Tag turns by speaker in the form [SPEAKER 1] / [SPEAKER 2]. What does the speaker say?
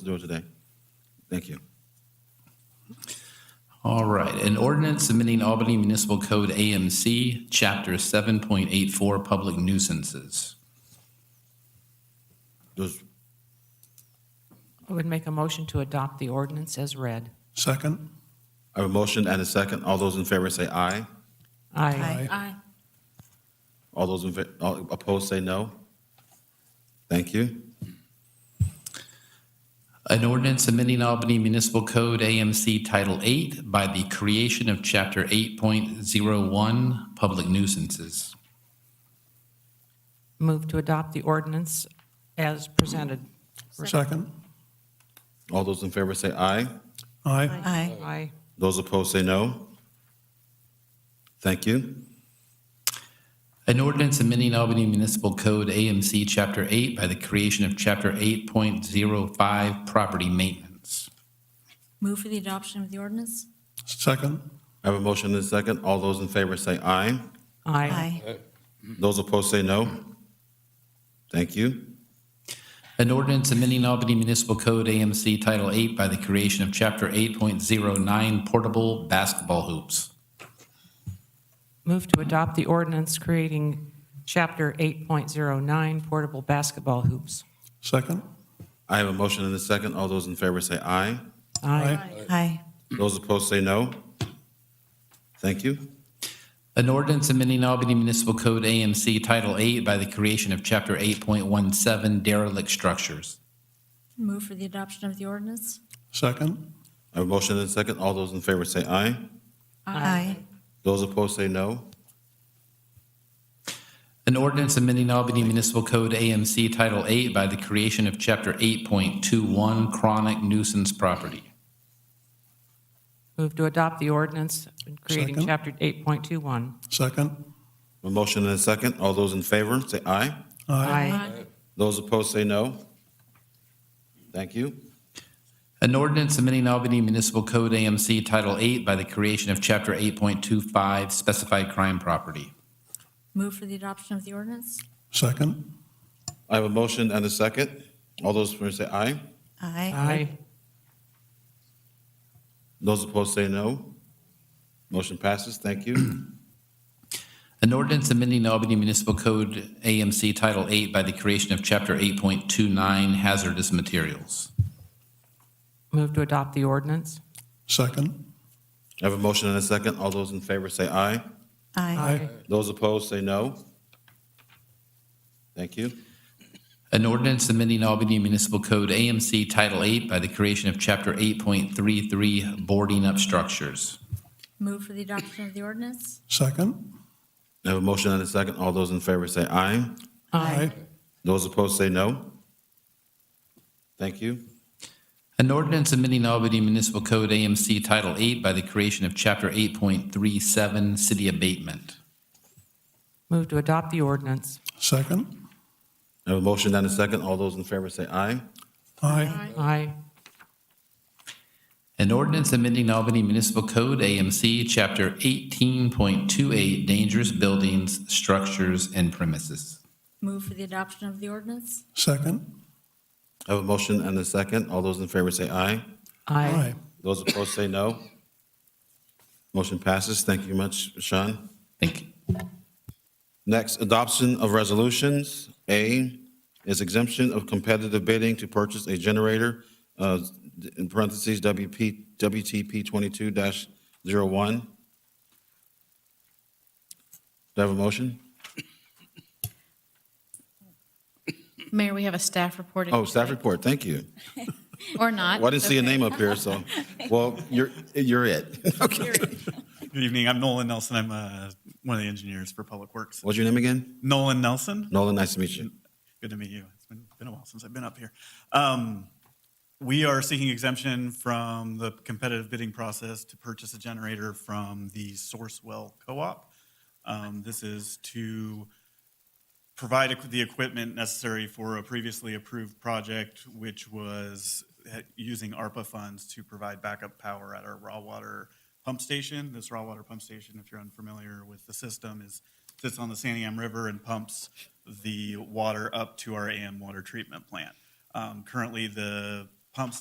[SPEAKER 1] the door today. Thank you.
[SPEAKER 2] All right, an ordinance submitting Albany Municipal Code AMC, Chapter 7.84, Public Nuisances.
[SPEAKER 1] Those,
[SPEAKER 3] I would make a motion to adopt the ordinance as read.
[SPEAKER 4] Second?
[SPEAKER 1] I have a motion and a second. All those in favor say aye.
[SPEAKER 3] Aye.
[SPEAKER 5] Aye.
[SPEAKER 1] All those in, fa- all opposed say no. Thank you.
[SPEAKER 2] An ordinance submitting Albany Municipal Code AMC Title 8 by the creation of Chapter 8.01, Public Nuisances.
[SPEAKER 3] Move to adopt the ordinance as presented.
[SPEAKER 4] Second?
[SPEAKER 1] All those in favor say aye.
[SPEAKER 4] Aye.
[SPEAKER 5] Aye.
[SPEAKER 3] Aye.
[SPEAKER 1] Those opposed say no. Thank you.
[SPEAKER 2] An ordinance amending Albany Municipal Code AMC Chapter 8 by the creation of Chapter 8.05 Property Maintenance.
[SPEAKER 5] Move for the adoption of the ordinance?
[SPEAKER 4] Second?
[SPEAKER 1] I have a motion and a second. All those in favor say aye.
[SPEAKER 3] Aye.
[SPEAKER 1] Those opposed say no. Thank you.
[SPEAKER 2] An ordinance amending Albany Municipal Code AMC Title 8 by the creation of Chapter 8.09 Portable Basketball Hoops.
[SPEAKER 3] Move to adopt the ordinance creating Chapter 8.09 portable basketball hoops.
[SPEAKER 4] Second?
[SPEAKER 1] I have a motion and a second. All those in favor say aye.
[SPEAKER 3] Aye.
[SPEAKER 5] Aye.
[SPEAKER 1] Those opposed say no. Thank you.
[SPEAKER 2] An ordinance amending Albany Municipal Code AMC Title 8 by the creation of Chapter 8.17 Derelict Structures.
[SPEAKER 5] Move for the adoption of the ordinance?
[SPEAKER 4] Second?
[SPEAKER 1] I have a motion and a second. All those in favor say aye.
[SPEAKER 5] Aye.
[SPEAKER 1] Those opposed say no.
[SPEAKER 2] An ordinance amending Albany Municipal Code AMC Title 8 by the creation of Chapter 8.21 Chronic Nuisance Property.
[SPEAKER 3] Move to adopt the ordinance creating
[SPEAKER 4] Second.
[SPEAKER 3] Chapter 8.21.
[SPEAKER 4] Second?
[SPEAKER 1] A motion and a second. All those in favor say aye.
[SPEAKER 5] Aye.
[SPEAKER 1] Those opposed say no. Thank you.
[SPEAKER 2] An ordinance amending Albany Municipal Code AMC Title 8 by the creation of Chapter 8.25 Specified Crime Property.
[SPEAKER 5] Move for the adoption of the ordinance?
[SPEAKER 4] Second?
[SPEAKER 1] I have a motion and a second. All those in favor say aye.
[SPEAKER 5] Aye.
[SPEAKER 3] Aye.
[SPEAKER 1] Those opposed say no. Motion passes. Thank you.
[SPEAKER 2] An ordinance amending Albany Municipal Code AMC Title 8 by the creation of Chapter 8.29 Hazardous Materials.
[SPEAKER 3] Move to adopt the ordinance.
[SPEAKER 4] Second?
[SPEAKER 1] I have a motion and a second. All those in favor say aye.
[SPEAKER 4] Aye.
[SPEAKER 1] Those opposed say no. Thank you.
[SPEAKER 2] An ordinance amending Albany Municipal Code AMC Title 8 by the creation of Chapter 8.33 Boarding Up Structures.
[SPEAKER 5] Move for the adoption of the ordinance?
[SPEAKER 4] Second?
[SPEAKER 1] I have a motion and a second. All those in favor say aye.
[SPEAKER 4] Aye.
[SPEAKER 1] Those opposed say no. Thank you.
[SPEAKER 2] An ordinance amending Albany Municipal Code AMC Title 8 by the creation of Chapter 8.37 City Abatement.
[SPEAKER 3] Move to adopt the ordinance.
[SPEAKER 4] Second?
[SPEAKER 1] I have a motion and a second. All those in favor say aye.
[SPEAKER 4] Aye.
[SPEAKER 3] Aye.
[SPEAKER 2] An ordinance amending Albany Municipal Code AMC Chapter 18.28 Dangerous Buildings, Structures, and Premises.
[SPEAKER 5] Move for the adoption of the ordinance?
[SPEAKER 4] Second?
[SPEAKER 1] I have a motion and a second. All those in favor say aye.
[SPEAKER 3] Aye.
[SPEAKER 1] Those opposed say no. Motion passes. Thank you much, Sean.
[SPEAKER 2] Thank you.
[SPEAKER 1] Next, adoption of resolutions. A is exemption of competitive bidding to purchase a generator, uh, in parentheses, WP, WTP 22-01. Do I have a motion?
[SPEAKER 6] Mayor, we have a staff report. if
[SPEAKER 1] Oh,
[SPEAKER 6] you'd
[SPEAKER 1] staff
[SPEAKER 6] like.
[SPEAKER 1] report, thank you.
[SPEAKER 6] Or not.
[SPEAKER 1] Well, I didn't see a
[SPEAKER 6] Okay.
[SPEAKER 1] name up here, so, well, you're, you're it. Okay.
[SPEAKER 7] Good evening. I'm Nolan Nelson. I'm uh, one of the engineers for Public Works.
[SPEAKER 1] What's your name again?
[SPEAKER 7] Nolan Nelson.
[SPEAKER 1] Nolan, nice to meet you.
[SPEAKER 7] Good to meet you. It's been, been a while since I've been up here. Um, we are seeking exemption from the competitive bidding process to purchase a generator from the Sourcewell Co-op. Um, this is to provide equ- the equipment necessary for a previously approved project, which was uh, using ARPA funds to provide backup power at our raw water pump station. This raw water pump station, if you're unfamiliar with the system, is, sits on the Saniam River and pumps the water up to our AM water treatment plant. Um, Currently, the pumps